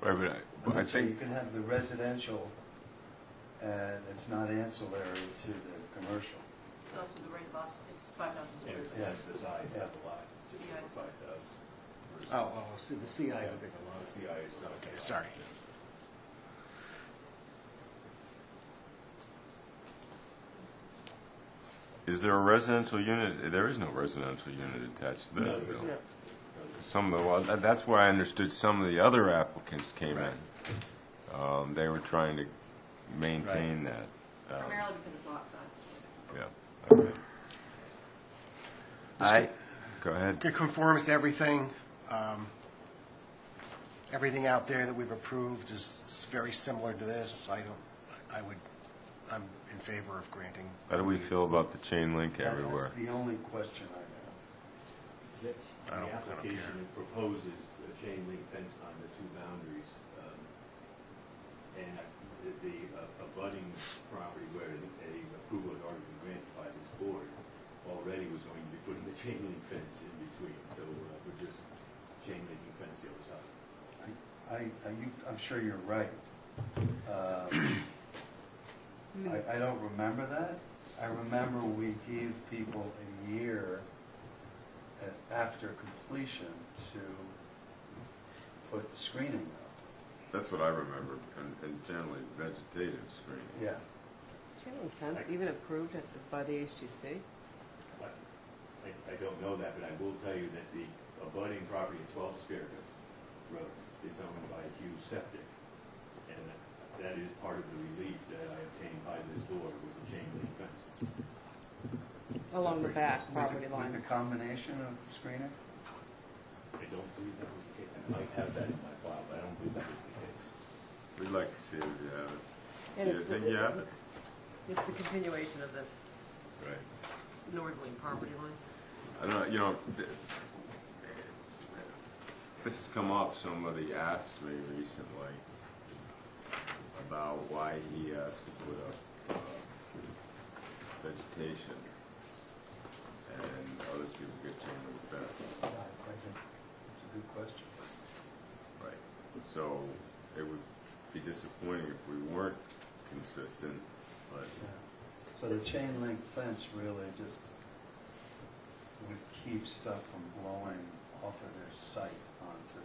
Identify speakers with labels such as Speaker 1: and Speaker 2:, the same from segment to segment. Speaker 1: Right, but I, I
Speaker 2: So you
Speaker 1: think,
Speaker 2: can have the residential, and it's not ancillary to the commercial.
Speaker 3: It's also the rate of loss, it's five thousand
Speaker 4: Yeah,
Speaker 3: square
Speaker 4: because
Speaker 3: feet.
Speaker 2: Yeah.
Speaker 4: that's the size of the lot, just
Speaker 3: Yeah.
Speaker 4: over five thousand.
Speaker 5: Oh, oh, see, the CI is a big
Speaker 4: The CI is not.
Speaker 5: Okay, sorry.
Speaker 1: is there a residential unit? There is no residential unit attached to this,
Speaker 4: No, there's
Speaker 1: though.
Speaker 5: one.
Speaker 1: Some of the, well, that- that's where I understood some of the other applicants came
Speaker 5: Right.
Speaker 1: in. Um, they were trying to maintain that. Um,
Speaker 3: Primarily because of lot size.
Speaker 1: Yeah, okay.
Speaker 5: I-
Speaker 1: Go ahead.
Speaker 5: It conforms to everything. Um, Everything out there that we've approved is s- very similar to this. I don't, I would, I'm in favor of granting.
Speaker 1: How do we feel about the chain link
Speaker 2: That-
Speaker 1: everywhere?
Speaker 2: That's the only question I
Speaker 4: The
Speaker 5: I don't- I don't
Speaker 4: application proposes a chain link fence on the two boundaries, um, and the- the uh, abutting property where a approval had already been granted by this board already was going to be putting the chain link fence in between, so uh, we're just chain linking fence the other side.
Speaker 2: have. I, I, you, I'm sure you're right. Uh, I, I don't remember that. I remember we gave people a year a- after completion to put screening up.
Speaker 1: That's what I remember, and, and generally vegetative screening.
Speaker 2: Yeah.
Speaker 6: Chain link fence, even approved at the, by the HGC?
Speaker 4: But I, I don't know that, but I will tell you that the abutting property at 12 Spirit Road is owned by Hugh Septic. And that- that is part of the relief that I obtained by this board was a chain link fence.
Speaker 6: Along the back
Speaker 2: With the-
Speaker 6: property
Speaker 2: With
Speaker 6: line.
Speaker 2: the combination of screening?
Speaker 4: I don't believe that was the case. I might have that in my file, but I don't believe that was the case.
Speaker 1: We'd like to see if you have it.
Speaker 6: And
Speaker 1: You
Speaker 6: it's
Speaker 1: think
Speaker 6: the-
Speaker 1: you have it?
Speaker 6: It's the continuation of this
Speaker 1: Right.
Speaker 6: northerly property line.
Speaker 1: I don't, know, you know, th- this has come up, somebody asked me recently about why he has to put up uh, vegetation and other people get chain link fence.
Speaker 2: I think It's a good question.
Speaker 1: Right. So it would be disappointing if we weren't consistent, but
Speaker 2: Yeah. So the chain link fence really just would keep stuff from blowing off of their site onto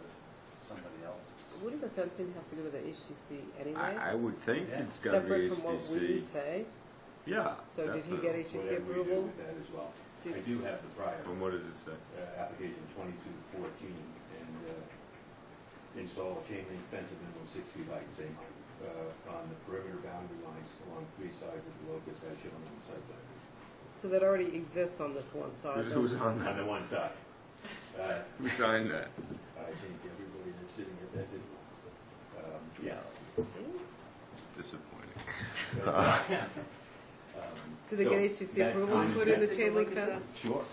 Speaker 2: somebody else's.
Speaker 6: Wouldn't the fencing have to go to the HGC anyway?
Speaker 1: I, I would think
Speaker 2: Yeah.
Speaker 1: it's gotta be
Speaker 6: Separate from what we
Speaker 1: HDC.
Speaker 6: say?
Speaker 1: Yeah.
Speaker 6: So did he get
Speaker 1: definitely.
Speaker 6: HGC
Speaker 4: Whatever we do
Speaker 6: approval?
Speaker 4: with that as well.
Speaker 6: Did-
Speaker 4: I do have the prior.
Speaker 1: And what does it say?
Speaker 4: uh, application 2214 and uh, install a chain link fence of minimum six feet height, same height, uh, on the perimeter boundary lines along three sides of the locus as shown on the site plan.
Speaker 6: So that already exists on this one side.
Speaker 1: Who's- Who's
Speaker 6: doesn't
Speaker 1: on
Speaker 4: On
Speaker 1: that?
Speaker 4: the one side. Uh,
Speaker 1: Who signed that?
Speaker 4: I think everybody that's sitting at that table. um, Yes.
Speaker 6: it?
Speaker 1: Disappointing.
Speaker 4: Um,
Speaker 6: Did they
Speaker 4: so
Speaker 6: get HGC
Speaker 4: that
Speaker 6: approval to
Speaker 4: common
Speaker 6: put in the
Speaker 4: fence-
Speaker 6: chain link fence?
Speaker 4: Sure.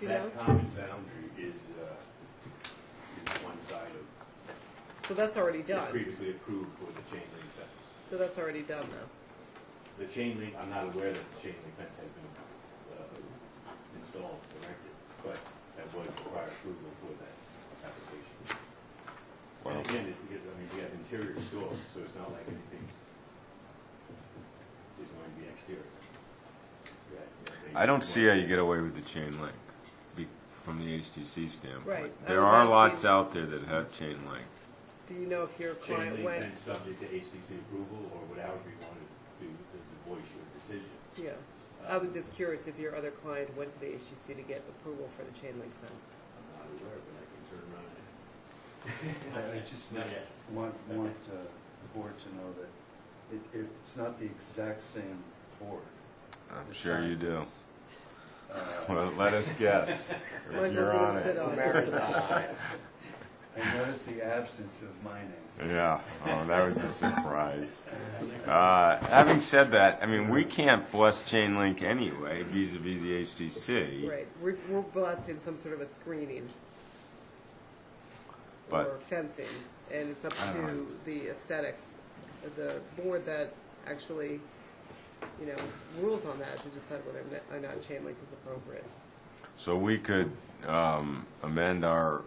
Speaker 6: You know?
Speaker 4: That common boundary is, uh, is one side of,
Speaker 6: So that's already
Speaker 4: was
Speaker 6: done.
Speaker 4: previously approved for the chain link fence.
Speaker 6: So that's already done now.
Speaker 4: The chain link, I'm not aware that the chain link fence has been uh, installed, erected, but that was prior approval for that application. And
Speaker 1: Wow.
Speaker 4: again, it's because, I mean, we have interior stores, so it's not like anything is going to be exterior. Yeah, yeah, they-
Speaker 1: I don't see how you get away with the chain link be- from the HTC standpoint.
Speaker 6: Right. I
Speaker 1: There
Speaker 6: was
Speaker 1: are
Speaker 6: asking-
Speaker 1: lots out there that have chain link.
Speaker 6: Do you know if your
Speaker 4: Chain
Speaker 6: client
Speaker 4: link
Speaker 6: went,
Speaker 4: fence subject to HDC approval or whatever you want to do to to voice your decision. Um,
Speaker 6: yeah. I was just curious if your other client went to the HGC to get approval for the chain link fence.
Speaker 4: I'm not aware, but I can turn around and.
Speaker 2: I I just
Speaker 4: Not yet.
Speaker 2: want, want uh, the board to know that it, it- it's not the exact same board.
Speaker 1: I'm
Speaker 2: The
Speaker 1: sure you do.
Speaker 2: signs. Uh,
Speaker 1: Well, let us guess.
Speaker 6: Might as well
Speaker 1: If you're
Speaker 6: do
Speaker 1: on
Speaker 6: sit
Speaker 1: it.
Speaker 6: on
Speaker 2: I notice the absence of mining.
Speaker 1: Yeah, oh, that was a surprise. Uh, having said that, I mean, we can't bless chain link anyway vis-à-vis the HTC.
Speaker 6: Right, we're, we're blasting some sort of a screening
Speaker 1: But-
Speaker 6: or fencing, and it's up
Speaker 1: I don't
Speaker 6: to the aesthetics, of the board that actually, you know, rules on that to decide whether or not- or not chain link is appropriate.
Speaker 1: So we could um, amend our